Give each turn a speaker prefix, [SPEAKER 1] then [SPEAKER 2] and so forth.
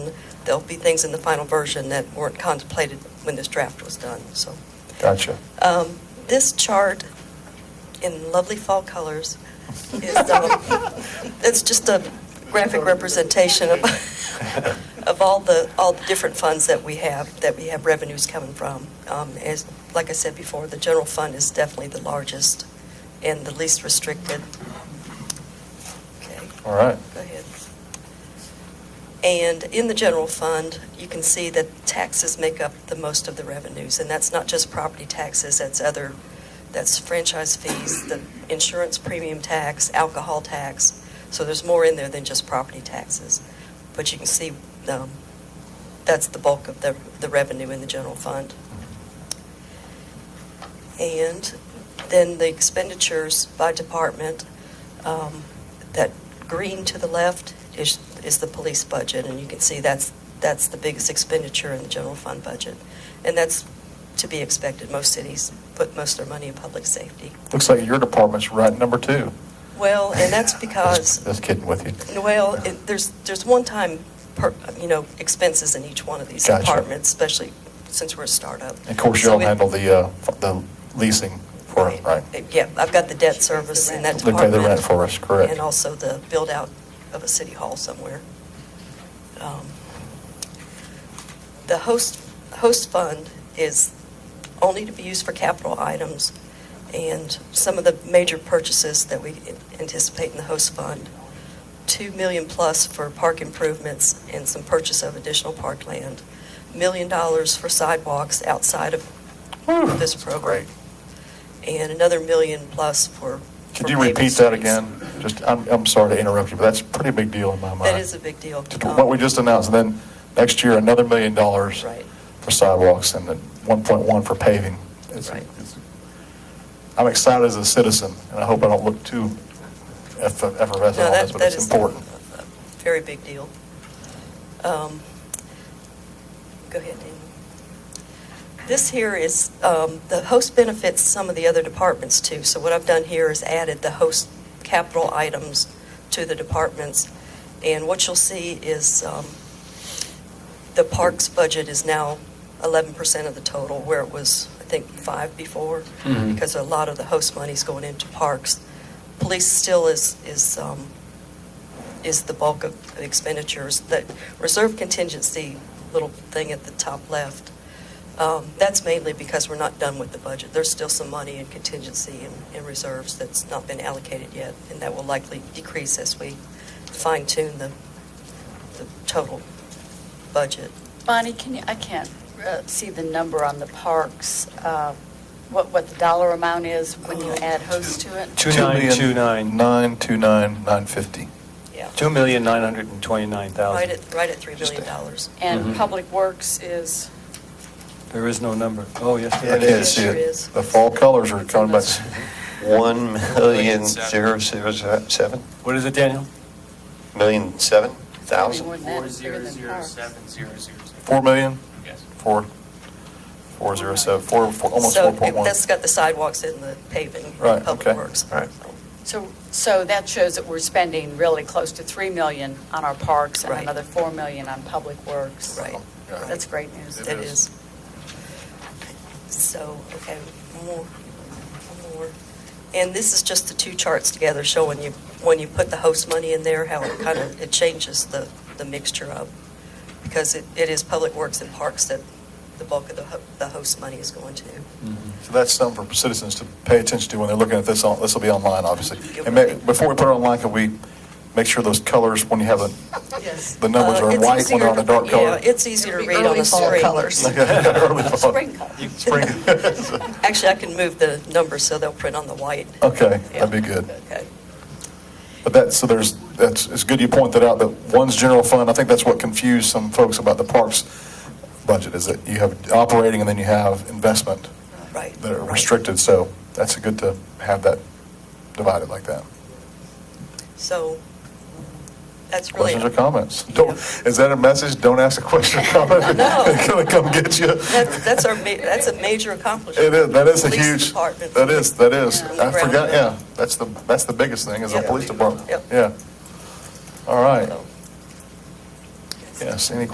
[SPEAKER 1] and there'll be things in the final version that weren't contemplated when this draft was done, so.
[SPEAKER 2] Gotcha.
[SPEAKER 1] Um, This chart in lovely fall colors is, um, it's just a graphic representation of, of all the, all the different funds that we have, that we have revenues coming from. Um, As, like I said before, the general fund is definitely the largest and the least restricted. Okay.
[SPEAKER 2] All right.
[SPEAKER 1] Go ahead. And in the general fund, you can see that taxes make up the most of the revenues, and that's not just property taxes, that's other, that's franchise fees, the insurance premium tax, alcohol tax, so there's more in there than just property taxes. But you can see, um, that's the bulk of the, the revenue in the general fund. And then the expenditures by department, um, that green to the left is, is the police budget, and you can see that's, that's the biggest expenditure in the general fund budget. And that's to be expected. Most cities put most of their money in public safety.
[SPEAKER 2] Looks like your department's right number two.
[SPEAKER 1] Well, and that's because-
[SPEAKER 2] Just just kidding with you.
[SPEAKER 1] Well, it- there's, there's one-time, per- you know, expenses in each one of these
[SPEAKER 2] Gotcha.
[SPEAKER 1] departments, especially since we're a startup.
[SPEAKER 2] Of course,
[SPEAKER 1] So
[SPEAKER 2] y'all
[SPEAKER 1] it-
[SPEAKER 2] handle the, uh, f- the leasing for, it, right?
[SPEAKER 1] Yeah, I've got the debt service in that
[SPEAKER 2] They pay the
[SPEAKER 1] department.
[SPEAKER 2] rent for us, correct.
[SPEAKER 1] And also the build-out of a city hall somewhere. Um, The host, host fund is only to be used for capital items, and some of the major purchases that we anticipate in the host fund, 2 million plus for park improvements and some purchase of additional parkland, million dollars for sidewalks outside of
[SPEAKER 2] Whew,
[SPEAKER 1] this
[SPEAKER 2] that's
[SPEAKER 1] program.
[SPEAKER 2] great.
[SPEAKER 1] And another million plus for.
[SPEAKER 2] Could
[SPEAKER 1] for
[SPEAKER 2] you
[SPEAKER 1] paving
[SPEAKER 2] repeat that
[SPEAKER 1] streets.
[SPEAKER 2] again? Just, I'm, I'm sorry to interrupt you, but that's a pretty big deal in my mind.
[SPEAKER 1] That is a big deal.
[SPEAKER 2] Just What we just announced, and then next year, another million dollars
[SPEAKER 1] Right.
[SPEAKER 2] for sidewalks and then 1.1 for paving. It's-
[SPEAKER 1] Right.
[SPEAKER 2] it's- I'm excited as a citizen, and I hope I don't look too eff- effervescent
[SPEAKER 1] No,
[SPEAKER 2] on
[SPEAKER 1] that-
[SPEAKER 2] this, but
[SPEAKER 1] that
[SPEAKER 2] it's
[SPEAKER 1] is
[SPEAKER 2] important.
[SPEAKER 1] a- a Very big deal. Um, Go ahead, Dan. This here is, um, the host benefits some of the other departments too. So what I've done here is added the host capital items to the departments. And what you'll see is um, the parks budget is now 11% of the total, where it was, I think, five before,
[SPEAKER 3] Mhm.
[SPEAKER 1] because a lot of the host money's going into parks. Police still is, is, um, is the bulk of expenditures. That reserve contingency little thing at the top left, um, that's mainly because we're not done with the budget. There's still some money in contingency and, and reserves that's not been allocated yet, and that will likely decrease as we fine tune the, the total budget.
[SPEAKER 4] Bonnie, can you, I can't uh, see the number on the parks, uh, what, what the dollar amount is when you add host to it?
[SPEAKER 3] Two nine two nine.
[SPEAKER 2] 929,950.
[SPEAKER 1] Yeah.
[SPEAKER 3] Two million nine hundred and twenty-nine
[SPEAKER 1] Right
[SPEAKER 3] thousand.
[SPEAKER 1] at, right at $3
[SPEAKER 2] Just
[SPEAKER 1] million.
[SPEAKER 2] a-
[SPEAKER 1] dollars.
[SPEAKER 4] And
[SPEAKER 2] Mm-hmm.
[SPEAKER 3] Mhm.
[SPEAKER 4] Public Works is,
[SPEAKER 3] There is no number. Oh, yes. there
[SPEAKER 5] It is.
[SPEAKER 1] Sure is.
[SPEAKER 2] The fall colors are coming back.
[SPEAKER 5] One million zero zero seven,
[SPEAKER 3] What is it, Daniel?
[SPEAKER 5] million seven
[SPEAKER 4] Maybe
[SPEAKER 5] thousand?
[SPEAKER 4] more than that,
[SPEAKER 6] Four
[SPEAKER 4] bigger
[SPEAKER 6] zero
[SPEAKER 4] than
[SPEAKER 6] zero
[SPEAKER 4] parks.
[SPEAKER 6] seven zero zero zero.
[SPEAKER 2] 4 million?
[SPEAKER 6] Yes.
[SPEAKER 2] 4, 407, 4, four- almost
[SPEAKER 1] So
[SPEAKER 2] 4.1.
[SPEAKER 1] it- that's got the sidewalks and the paving, and
[SPEAKER 2] Right,
[SPEAKER 1] public
[SPEAKER 2] okay,
[SPEAKER 1] works.
[SPEAKER 2] all right.
[SPEAKER 4] so, so that shows that we're spending really close to 3 million on our parks and
[SPEAKER 1] Right.
[SPEAKER 4] another 4 million on Public Works.
[SPEAKER 1] Right.
[SPEAKER 2] Yeah.
[SPEAKER 4] That's great news.
[SPEAKER 1] It is. So, okay, one more, one more. And this is just the two charts together showing you, when you put the host money in there, how it kind of, it changes the, the mixture of, because it, it is Public Works and Parks that the bulk of the, ho- the host money is going to.
[SPEAKER 2] So that's something for citizens to pay attention to when they're looking at this, on this will be online, obviously. And ma- before we put it online, can we make sure those colors, when you have the,
[SPEAKER 1] Yes. Uh,
[SPEAKER 2] the numbers are in white, when they're on a dark color?
[SPEAKER 1] Yeah, it's e- easier to
[SPEAKER 4] It'll be
[SPEAKER 1] read on
[SPEAKER 4] early
[SPEAKER 1] the
[SPEAKER 4] fall
[SPEAKER 1] screen.
[SPEAKER 4] colors.
[SPEAKER 2] Early fall.
[SPEAKER 4] Spring colors.
[SPEAKER 2] Spring.
[SPEAKER 1] Actually, I can move the numbers so they'll print on the white.
[SPEAKER 2] Okay, that'd be good.
[SPEAKER 1] Okay.
[SPEAKER 2] But that, so there's, that's, it's good you point that out, that one's general fund, I think that's what confused some folks about the parks budget, is that you have operating and then you have investment
[SPEAKER 1] Right.
[SPEAKER 2] that are
[SPEAKER 1] right.
[SPEAKER 2] restricted, so that's good to have that divided like that.
[SPEAKER 1] So that's really.
[SPEAKER 2] Questions or comments?
[SPEAKER 1] Yeah.
[SPEAKER 2] Don't, is that a message? Don't ask a question or comment?
[SPEAKER 1] No.
[SPEAKER 2] They're gonna come get you.
[SPEAKER 1] That's, that's our, ma- that's a major accomplishment.
[SPEAKER 2] It is, that is a
[SPEAKER 1] Police
[SPEAKER 2] huge,
[SPEAKER 1] department.
[SPEAKER 2] that is, that is.
[SPEAKER 1] From the
[SPEAKER 2] I
[SPEAKER 1] ground
[SPEAKER 2] forgot,
[SPEAKER 1] up.
[SPEAKER 2] yeah, that's the, that's the biggest thing, is the
[SPEAKER 1] Yeah.
[SPEAKER 2] police department.
[SPEAKER 1] Yep.
[SPEAKER 2] Yeah. All right.
[SPEAKER 1] So-
[SPEAKER 2] Yes, any